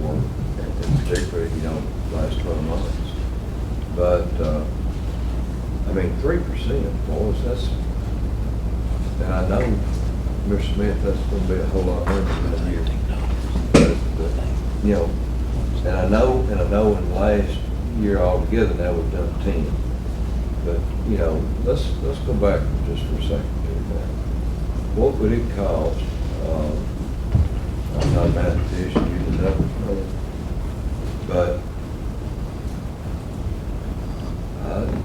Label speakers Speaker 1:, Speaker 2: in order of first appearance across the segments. Speaker 1: one in particular, you know, last twelve months. But, uh, I mean, three percent, boys, that's, and I know, Mr. Smith, that's gonna be a whole lot more than that year. But, but, You know, and I know, and I know in last year altogether, now we've done ten. But, you know, let's, let's go back just for a second here now. What would it cost, um, I'm not a mathematician, you can never know, but I-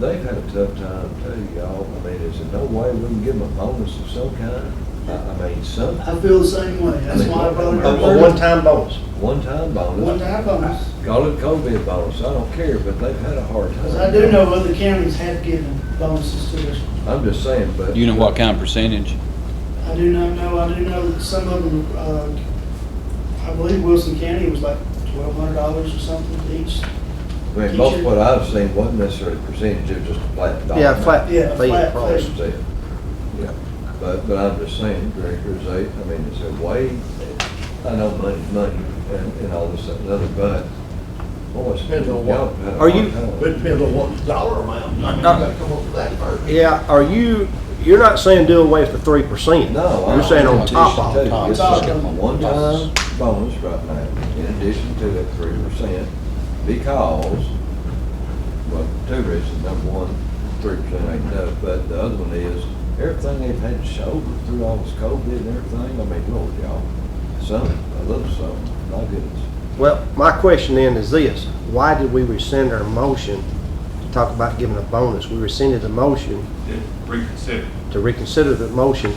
Speaker 1: they've had a tough time too, y'all. I mean, is there no way we can give them a bonus of some kind? I, I mean, some,
Speaker 2: I feel the same way, that's why I brought it
Speaker 3: A
Speaker 2: up.
Speaker 3: a one-time bonus.
Speaker 1: one-time bonus.
Speaker 2: One-time bonus,
Speaker 1: Call it COVID bonus, I don't care, but they've had a hard time.
Speaker 2: because I do know other counties have given bonuses to us.
Speaker 1: I'm just saying, but.
Speaker 4: You know what kind of percentage?
Speaker 2: I do not know, I do know that some of them, uh, I believe Wilson County was like twelve hundred dollars or something each.
Speaker 1: I mean, most of what I've seen wasn't necessarily percentage, it was just a flat dollar.
Speaker 3: Yeah, flat.
Speaker 2: Yeah,
Speaker 3: fee.
Speaker 2: flat fee.
Speaker 1: That's it. Yeah, but, but I'm just saying, directors, they, I mean, it's a way, I know money's money and, and all this and the other, but, boy, it's been
Speaker 3: Depends
Speaker 1: a
Speaker 3: on what-
Speaker 1: while.
Speaker 3: are you-
Speaker 1: But
Speaker 3: But it depends on what dollar amount, I mean, you gotta come up with that first.
Speaker 5: Yeah, are you, you're not saying do away with the three percent?
Speaker 1: No.
Speaker 5: You're saying on top of it.
Speaker 1: This
Speaker 2: Top.
Speaker 1: is a one-time bonus right now, in addition to that three percent, because, well, two reasons, number one, three percent ain't enough, but the other one is, everything they've had to shoulder through all this COVID and everything, I mean, Lord, y'all, some, a little some, my goodness.
Speaker 5: Well, my question then is this, why did we rescind our motion to talk about giving a bonus? We rescinded the motion
Speaker 6: Did reconsider,
Speaker 5: to reconsider the motion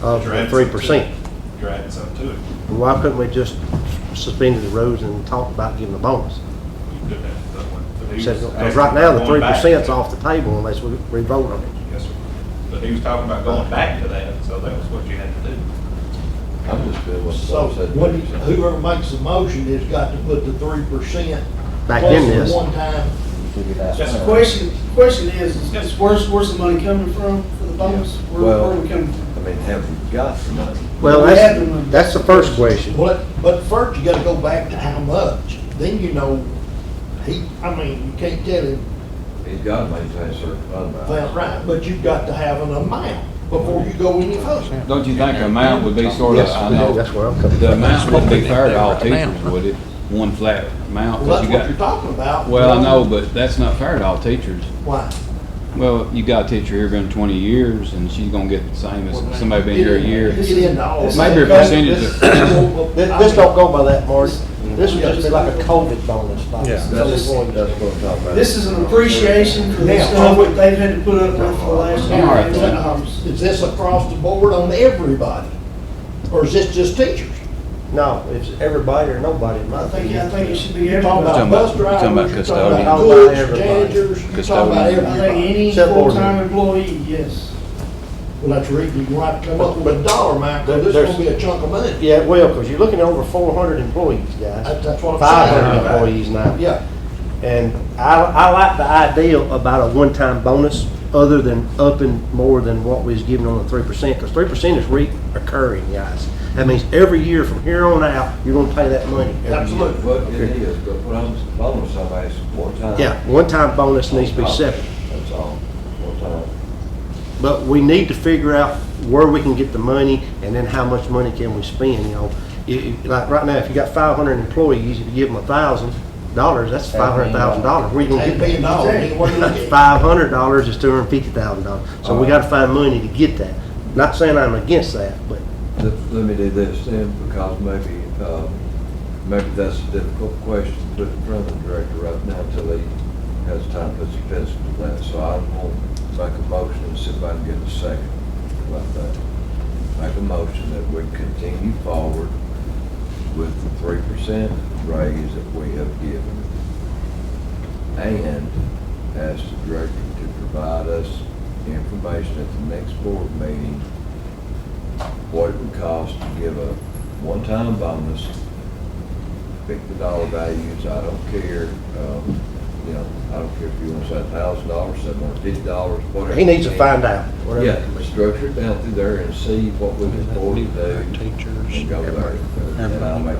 Speaker 5: of
Speaker 6: Right.
Speaker 5: three percent.
Speaker 6: you're adding something to it.
Speaker 5: Why couldn't we just suspend the rules and talk about giving a bonus?
Speaker 6: You could have done that one, but he was
Speaker 5: Said,
Speaker 6: asking
Speaker 5: uh, Right now, the three
Speaker 6: about going back to
Speaker 5: percent's
Speaker 6: that.
Speaker 5: off the table unless we revote on it.
Speaker 6: Yes, sir. But he was talking about going back to that, so that was what you had to do.
Speaker 1: I'm just doing what
Speaker 3: So,
Speaker 1: Paul said.
Speaker 3: when, you- whoever makes the motion has got to put the three percent.
Speaker 5: Back in this.
Speaker 3: Plus the one-time,
Speaker 2: Just the question, the question is, is is where's, where's the money coming from for the bonus? Where, where
Speaker 1: Well,
Speaker 2: are we coming
Speaker 1: I
Speaker 2: from?
Speaker 1: mean, have we got the money?
Speaker 5: Well,
Speaker 2: We had the
Speaker 5: that's,
Speaker 2: money.
Speaker 5: that's the first question.
Speaker 3: but, but first you gotta go back to how much, then you know, he, I mean, you can't tell him
Speaker 1: He's got to maintain a certain fund balance.
Speaker 3: that right, but you've got to have an amount before you go any further.
Speaker 4: Don't you think the amount would be sort of,
Speaker 5: Yes,
Speaker 4: I know,
Speaker 5: that's where I'm coming
Speaker 4: the
Speaker 5: from.
Speaker 4: amount would be fair to all teachers, would it? One flat amount, because
Speaker 3: Well, that's
Speaker 4: you
Speaker 3: what you're
Speaker 4: got,
Speaker 3: talking about.
Speaker 4: well, I know, but that's not fair to all teachers.
Speaker 3: Why?
Speaker 4: Well, you got a teacher here been twenty years, and she's gonna get the same as somebody been here a year.
Speaker 3: Get into all
Speaker 4: It
Speaker 3: that.
Speaker 4: might be a percentage of,
Speaker 7: This, this don't go by that, Marty. This would just be like a COVID bonus, like.
Speaker 3: Yeah.
Speaker 1: That's, that's what I'm talking about.
Speaker 2: This is an appreciation for the
Speaker 3: Now,
Speaker 2: stuff
Speaker 3: are
Speaker 2: that they've had to put up with for the last year.
Speaker 4: All right, then.
Speaker 2: Um,
Speaker 3: Is this across the board on everybody? Or is this just teachers?
Speaker 7: No, it's everybody or nobody, in my
Speaker 2: I think, I
Speaker 7: opinion.
Speaker 2: think it should be
Speaker 3: You're talking
Speaker 2: everybody.
Speaker 3: about
Speaker 4: Talking
Speaker 3: bus
Speaker 4: about- talking about
Speaker 3: drivers, you're talking about
Speaker 7: custodians.
Speaker 3: cooks, janitors, you're
Speaker 4: Custodians.
Speaker 3: talking about
Speaker 2: I think
Speaker 3: everybody.
Speaker 2: any
Speaker 7: Except Oregon.
Speaker 2: full-time employee, yes.
Speaker 3: Well, that's right, you can write, come up with a dollar amount,
Speaker 7: There-
Speaker 3: because this is
Speaker 7: there's-
Speaker 3: gonna be a chunk of money.
Speaker 7: Yeah, well, because you're looking at over four hundred employees, guys.
Speaker 3: That's, that's what
Speaker 7: Five hundred
Speaker 3: I'm saying.
Speaker 7: employees now.
Speaker 3: Yeah,
Speaker 7: And I, I like the idea about a one-time bonus, other than upping more than what we was giving on the three percent, because three percent is recurring, guys. That means every year from here on out, you're gonna pay that money. every year.
Speaker 3: absolutely.
Speaker 1: But it is, but what I'm, bonus, I'm asking one time.
Speaker 7: Yeah, one-time bonus needs to be separate.
Speaker 1: That's all, one time.
Speaker 7: But we need to figure out where we can get the money and then how much money can we spend, you know? You- you- Like right now, if you got five hundred employees, if you give them a thousand dollars, that's five hundred thousand dollars. Where you gonna
Speaker 3: Ain't
Speaker 7: get
Speaker 3: paying
Speaker 7: that?
Speaker 3: dollars, ain't worth it.
Speaker 7: Five hundred dollars is two hundred and fifty thousand dollars. So we gotta find money to get that. Not saying I'm against that, but
Speaker 1: Let, let me do this then, because maybe, um, maybe that's a difficult question to put in front of the director right now until he has time to put some pencil to that. So I will make a motion and see if I can get a second about that. Make a motion that we continue forward with the three percent raise that we have given. And ask the director to provide us information at the next board meeting what it would cost to give a one-time bonus, pick the dollar values, I don't care, um, you know, I don't care if you want to say a thousand dollars, seven hundred fifty dollars, whatever.
Speaker 7: he needs to find out. whatever.
Speaker 1: Yeah, structure it down through there and see what we can afford to do.
Speaker 4: Teachers,
Speaker 1: And go there, and I'll make